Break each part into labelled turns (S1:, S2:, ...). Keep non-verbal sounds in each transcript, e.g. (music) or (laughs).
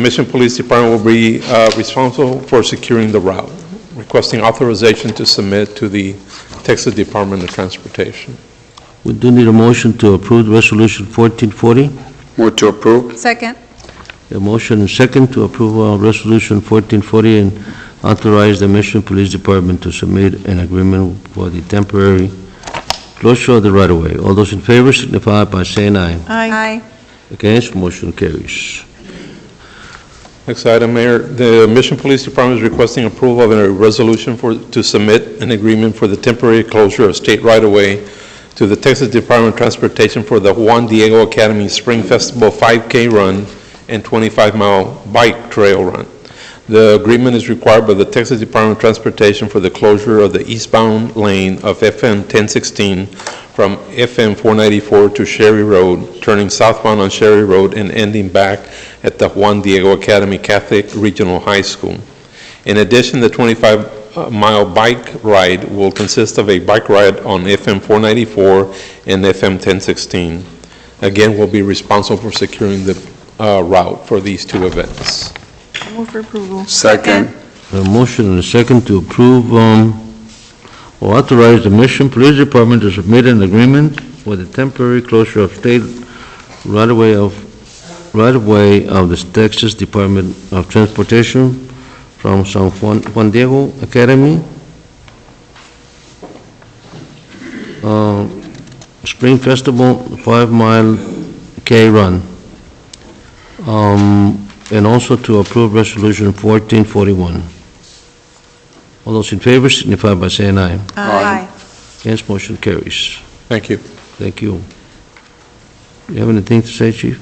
S1: Mission Police Department will be uh, responsible for securing the route, requesting authorization to submit to the Texas Department of Transportation.
S2: We do need a motion to approve Resolution 1440.
S3: Move to approve.
S4: Second.
S2: A motion and second to approve uh, Resolution 1440 and authorize the Mission Police Department to submit an agreement for the temporary closure of the right-of-way. All those in favor signify by saying aye.
S4: Aye.
S2: Against, motion carries.
S1: Next item, Mayor, the Mission Police Department is requesting approval of a resolution for, to submit an agreement for the temporary closure of state right-of-way to the Texas Department of Transportation for the Juan Diego Academy Spring Festival 5K Run and 25-mile bike trail run. The agreement is required by the Texas Department of Transportation for the closure of the eastbound lane of FM 1016 from FM 494 to Sherry Road, turning southbound on Sherry Road and ending back at the Juan Diego Academy Catholic Regional High School. In addition, the 25-mile bike ride will consist of a bike ride on FM 494 and FM 1016. Again, we'll be responsible for securing the uh, route for these two events.
S4: Move for approval.
S3: Second.
S2: A motion and a second to approve, um, or authorize the Mission Police Department to submit an agreement for the temporary closure of state right-of-way of, right-of-way of the Texas Department of Transportation from San Juan, Juan Diego Academy, uh, Spring Festival, five-mile K run. Um, and also to approve Resolution 1441. All those in favor signify by saying aye.
S3: Aye.
S2: Against, motion carries.
S1: Thank you.
S2: Thank you. You have anything to say, chief?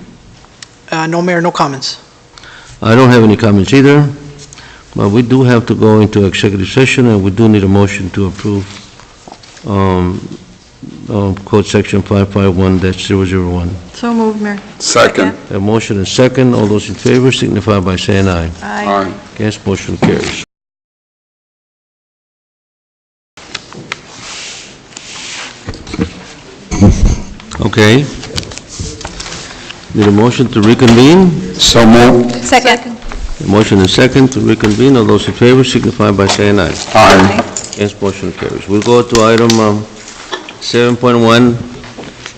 S5: Uh, No, Mayor, no comments.
S2: I don't have any comments either, but we do have to go into executive session, and we do need a motion to approve um, um, Code Section 551-001.
S4: So moved, Mayor.
S3: Second.
S2: A motion and second. All those in favor signify by saying aye.
S4: Aye.
S3: Aye.
S2: Against, motion carries. Okay. Need a motion to reconvene?
S3: So moved.
S4: Second.
S2: A motion and second to reconvene. All those in favor signify by saying aye.
S3: Aye.
S2: Against, motion carries. We'll go to item um, 7.1.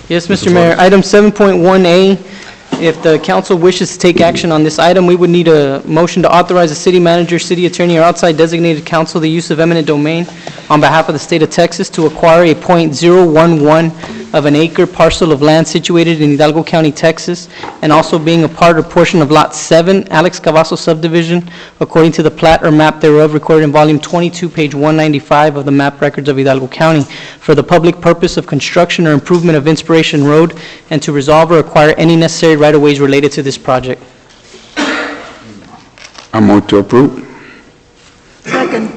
S6: Yes, Mr. Mayor, item 7.1A, if the council wishes to take action on this item, we would need a motion to authorize the city manager, city attorney, or outside designated counsel the use of eminent domain on behalf of the state of Texas to acquire a .011 of an acre parcel of land situated in Hidalgo County, Texas, and also being a part or portion of Lot 7, Alex Cavazos subdivision, according to the plat or map thereof recorded in Volume 22, page 195 of the map records of Hidalgo County, for the public purpose of construction or improvement of Inspiration Road, and to resolve or acquire any necessary right-of-ways related to this project.
S3: I move to approve.
S4: Second.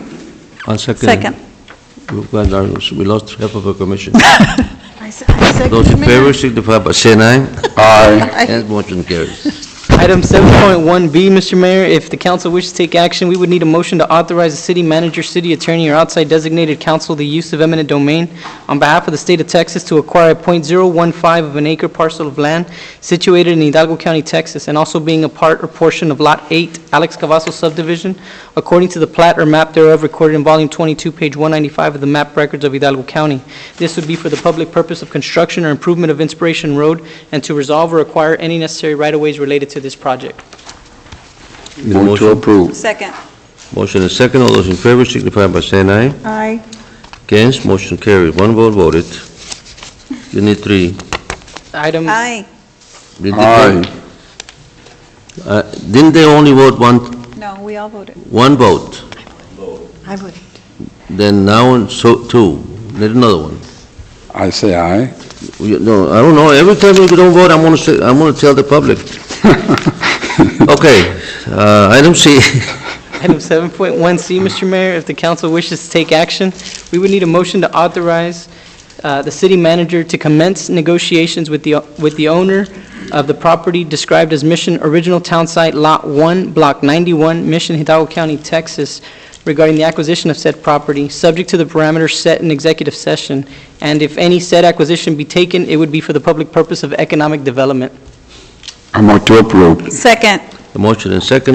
S2: I'll second.
S4: Second.
S2: We've got our- We lost half of our commission.
S4: (laughs) I se- I second,
S2: Those in
S4: Mayor.
S2: favor signify by saying aye.
S3: Aye.
S2: Against, motion carries.
S6: Item 7.1B, Mr. Mayor, if the council wishes to take action, we would need a motion to authorize the city manager, city attorney, or outside designated counsel the use of eminent domain on behalf of the state of Texas to acquire a .015 of an acre parcel of land situated in Hidalgo County, Texas, and also being a part or portion of Lot 8, Alex Cavazos subdivision, according to the plat or map thereof recorded in Volume 22, page 195 of the map records of Hidalgo County. This would be for the public purpose of construction or improvement of Inspiration Road, and to resolve or acquire any necessary right-of-ways related to this project.
S2: Need a
S3: Move to
S2: motion?
S3: approve.
S4: Second.
S2: Motion and second. All those in favor signify by saying aye.
S4: Aye.
S2: Against, motion carries. One vote voted. You need three.
S6: Item,
S4: Aye.
S2: You need
S3: Aye.
S2: three. Uh, Didn't they only vote one,
S4: No, we all voted.
S2: one vote?
S4: I voted.
S2: Then now, so, two. Need another one.
S3: I say aye.
S2: You- No, I don't know. Every time you don't vote, I'm gonna say, I'm gonna tell the public. Okay, uh, item C.
S6: item 7.1C, Mr. Mayor, if the council wishes to take action, we would need a motion to authorize uh, the city manager to commence negotiations with the, with the owner of the property described as Mission Original Town Site Lot 1, Block 91, Mission Hidalgo County, Texas, regarding the acquisition of said property, subject to the parameters set in executive session, and if any said acquisition be taken, it would be for the public purpose of economic development.
S3: I move to approve.
S4: Second.
S2: The motion and second,